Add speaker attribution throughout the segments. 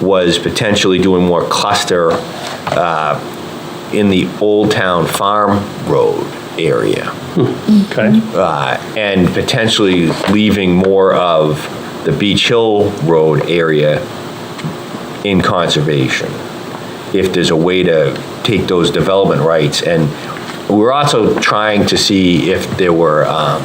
Speaker 1: was potentially doing more cluster uh, in the Old Town Farm Road area
Speaker 2: Okay.
Speaker 1: uh, and potentially leaving more of the Beach Hill Road area in conservation, if there's a way to take those development rights. And we're also trying to see if there were, um,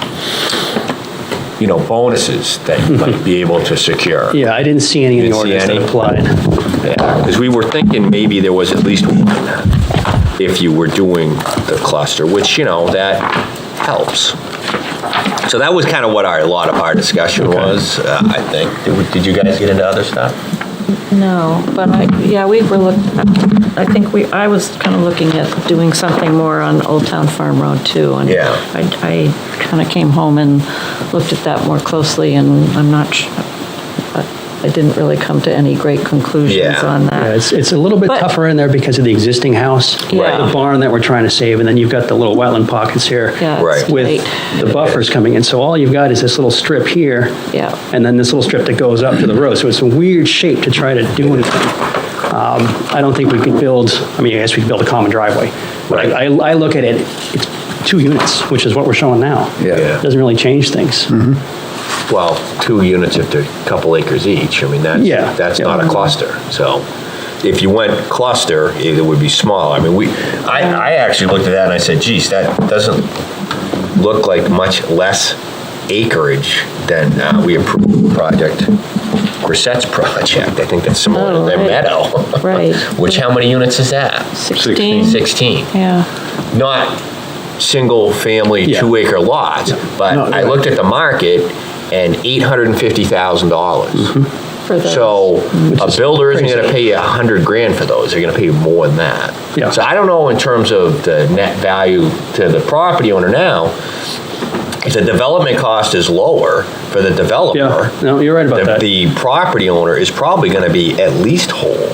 Speaker 1: you know, bonuses that you might be able to secure.
Speaker 2: Yeah, I didn't see any in
Speaker 1: You
Speaker 2: the
Speaker 1: didn't see
Speaker 2: ordinance that
Speaker 1: any?
Speaker 2: applied.
Speaker 1: Because we were thinking maybe there was at least one, if you were doing the cluster, which, you know, that helps. So that was kind of what our, a lot of our discussion was, uh, I think. Did we- Did you guys get into other stuff?
Speaker 3: No, but I, yeah, we were look, I think we, I was kind of looking at doing something more on Old Town Farm Road too. and
Speaker 1: Yeah.
Speaker 3: I, I kind of came home and looked at that more closely and I'm not, su- I I didn't really come to any great conclusions
Speaker 1: Yeah.
Speaker 3: on
Speaker 2: Yeah,
Speaker 3: that.
Speaker 2: It's, it's a little bit
Speaker 3: But-
Speaker 2: tougher in there because of the existing house.
Speaker 3: Right.
Speaker 2: The barn that we're trying to save, and then you've got the little wetland pockets here.
Speaker 3: Yeah,
Speaker 1: Right.
Speaker 3: it's
Speaker 2: With
Speaker 3: tight.
Speaker 2: the buffers coming in. So all you've got is this little strip here.
Speaker 3: Yeah.
Speaker 2: And then this little strip that goes up to the road. So it's a weird shape to try to do anything. Um, I don't think we could build, I mean, I guess we could build a common driveway. But I, I I look at it, it's two units, which is what we're showing now.
Speaker 1: Yeah. Yeah. Mm-hmm.
Speaker 2: Doesn't really change things.
Speaker 1: Well, two units if they're a couple acres each, I mean,
Speaker 2: Yeah.
Speaker 1: that's, that's not a
Speaker 2: Yeah.
Speaker 1: cluster, so. If you went cluster, it would be small, I mean, we, I, I actually looked at that and I said, geez, that doesn't look like much less acreage than uh, we approved project, Grissette's project, I think that's similar to
Speaker 3: Oh,
Speaker 1: their
Speaker 3: right.
Speaker 1: meadow.
Speaker 3: Right.
Speaker 1: Which, how many units is that?
Speaker 3: 16,
Speaker 1: 16
Speaker 3: yeah,
Speaker 1: not single-family,
Speaker 2: Yeah.
Speaker 1: two-acre lots, but
Speaker 2: No,
Speaker 1: I looked at the market, and $850,000.
Speaker 3: for the.
Speaker 1: So a builder isn't gonna
Speaker 2: Mm-hmm. crazy.
Speaker 1: pay you 100 grand for those, they're gonna pay you more than
Speaker 2: Yeah.
Speaker 1: that. So I don't know in terms of the net value to the property owner now, if the development cost is lower for the developer,
Speaker 2: Yeah, no, you're right about
Speaker 1: the
Speaker 2: that.
Speaker 1: the property owner is probably gonna be at least whole.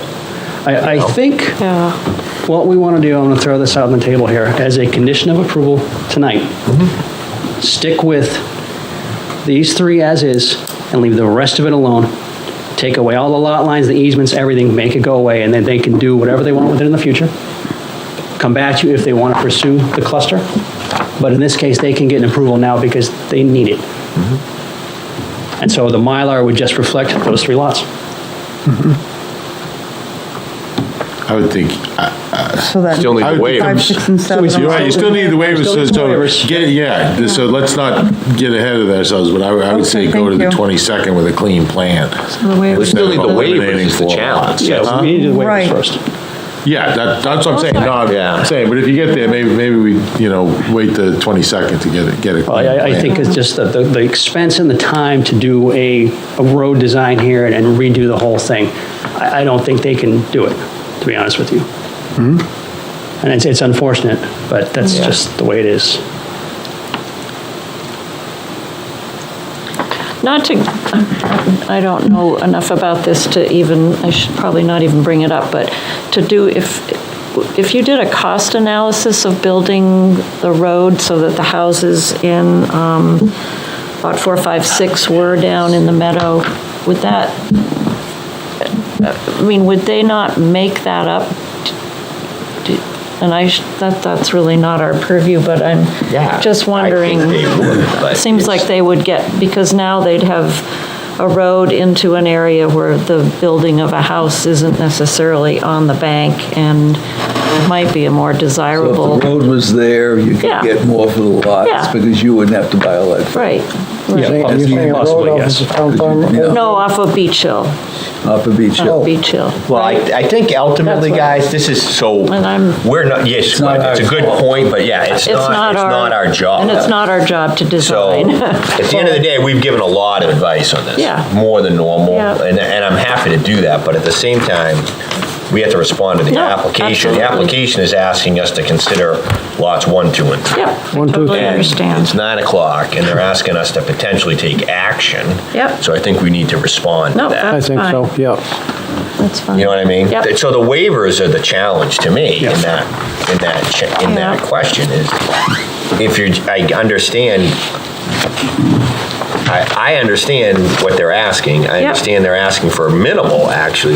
Speaker 2: I, I think
Speaker 3: Yeah,
Speaker 2: What we want to do, I'm going to throw this out on the table here, as a condition of approval tonight, stick with these three as is and leave the rest of it alone. Take away all the lot lines, the easements, everything, make it go away, and then they can do whatever they want with it in the future. Come back to you if they want to pursue the cluster, but in this case, they can get an approval now because they need it. And so the Mylar would just reflect those three lots.
Speaker 4: I would think,
Speaker 5: So then,
Speaker 6: Still need
Speaker 4: I
Speaker 6: the
Speaker 4: would-
Speaker 5: five,
Speaker 6: waivers.
Speaker 5: six, and seven.
Speaker 4: you're right, you still need the waivers,
Speaker 2: Still
Speaker 4: so,
Speaker 2: need the
Speaker 4: so
Speaker 2: waivers.
Speaker 4: get it, yeah, th- so let's not get ahead of ourselves, but I would, I would say
Speaker 5: Okay,
Speaker 4: go to the
Speaker 5: thank you.
Speaker 4: 22nd with a clean plan.
Speaker 5: the waivers.
Speaker 1: We still need the waivers,
Speaker 4: Eliminating
Speaker 1: is the
Speaker 4: four
Speaker 1: challenge.
Speaker 4: lots.
Speaker 2: Yeah, we need the waivers
Speaker 5: Right.
Speaker 2: first.
Speaker 4: Yeah, that, that's what I'm saying, no,
Speaker 1: Yeah.
Speaker 4: I'm saying, but if you get there, maybe, maybe we, you know, wait the 22nd to get it, get a
Speaker 2: Well,
Speaker 4: clean
Speaker 2: I, I think
Speaker 4: plan.
Speaker 2: it's just that the, the expense and the time to do a, a road design here and redo the whole thing, I, I don't think they can do it, to be honest with you. And it's, it's unfortunate, but that's
Speaker 3: Yeah.
Speaker 2: just the way it is.
Speaker 3: not to, I don't know enough about this to even, I should probably not even bring it up, but to do, if, if you did a cost analysis of building the road so that the houses in um, lot four, five, six were down in the meadow, would that, I mean, would they not make that up? Do- And I, sh- that, that's really not our purview, but I'm
Speaker 1: Yeah,
Speaker 3: just wondering.
Speaker 1: I think they would, but
Speaker 3: Seems
Speaker 1: it's-
Speaker 3: like they would get, because now they'd have a road into an area where the building of a house isn't necessarily on the bank and might be a more
Speaker 7: So
Speaker 3: desirable,
Speaker 7: If the road was there, you
Speaker 3: Yeah.
Speaker 7: could get more for the
Speaker 3: Yeah.
Speaker 7: lots, because you wouldn't have to buy all that.
Speaker 3: right.
Speaker 7: Saying
Speaker 2: You're
Speaker 7: that's
Speaker 2: saying
Speaker 7: you-
Speaker 2: a road Possibly, off yes. of
Speaker 7: Because you- yeah,
Speaker 3: No, off of Beach Hill,
Speaker 7: Off of Beach
Speaker 3: off
Speaker 7: Hill.
Speaker 2: Oh.
Speaker 3: of Beach Hill.
Speaker 1: Well, I, I think ultimately,
Speaker 3: That's what-
Speaker 1: guys, this is so,
Speaker 3: And I'm-
Speaker 1: we're not, yes, it's
Speaker 7: not
Speaker 1: a
Speaker 7: our
Speaker 1: good
Speaker 7: fault.
Speaker 1: point, but yeah, it's not, it's not our job.
Speaker 3: And it's not our job to
Speaker 1: So,
Speaker 3: design.
Speaker 1: at the end of the day, we've given a lot of advice on this.
Speaker 3: Yeah.
Speaker 1: More than normal,
Speaker 3: Yeah.
Speaker 1: and, and I'm happy to do that, but at the same time, we have to respond to the
Speaker 3: No,
Speaker 1: application. The
Speaker 3: absolutely.
Speaker 1: application is asking us to consider lots one, two, and three.
Speaker 3: Yep, I totally
Speaker 1: And
Speaker 3: understand.
Speaker 1: It's nine o'clock, and they're asking us to potentially take action.
Speaker 3: Yep.
Speaker 1: So I think we need to respond to
Speaker 3: No,
Speaker 1: that.
Speaker 3: I think so, yep. That's fine.
Speaker 1: You know what I mean?
Speaker 3: Yep.
Speaker 1: So the waivers are the challenge to me in
Speaker 2: Yeah.
Speaker 1: that, in that, cha- in that
Speaker 3: Yeah.
Speaker 1: question is, if you're, I understand, I, I understand what they're asking. I
Speaker 3: Yep.
Speaker 1: understand they're asking for minimal, actually,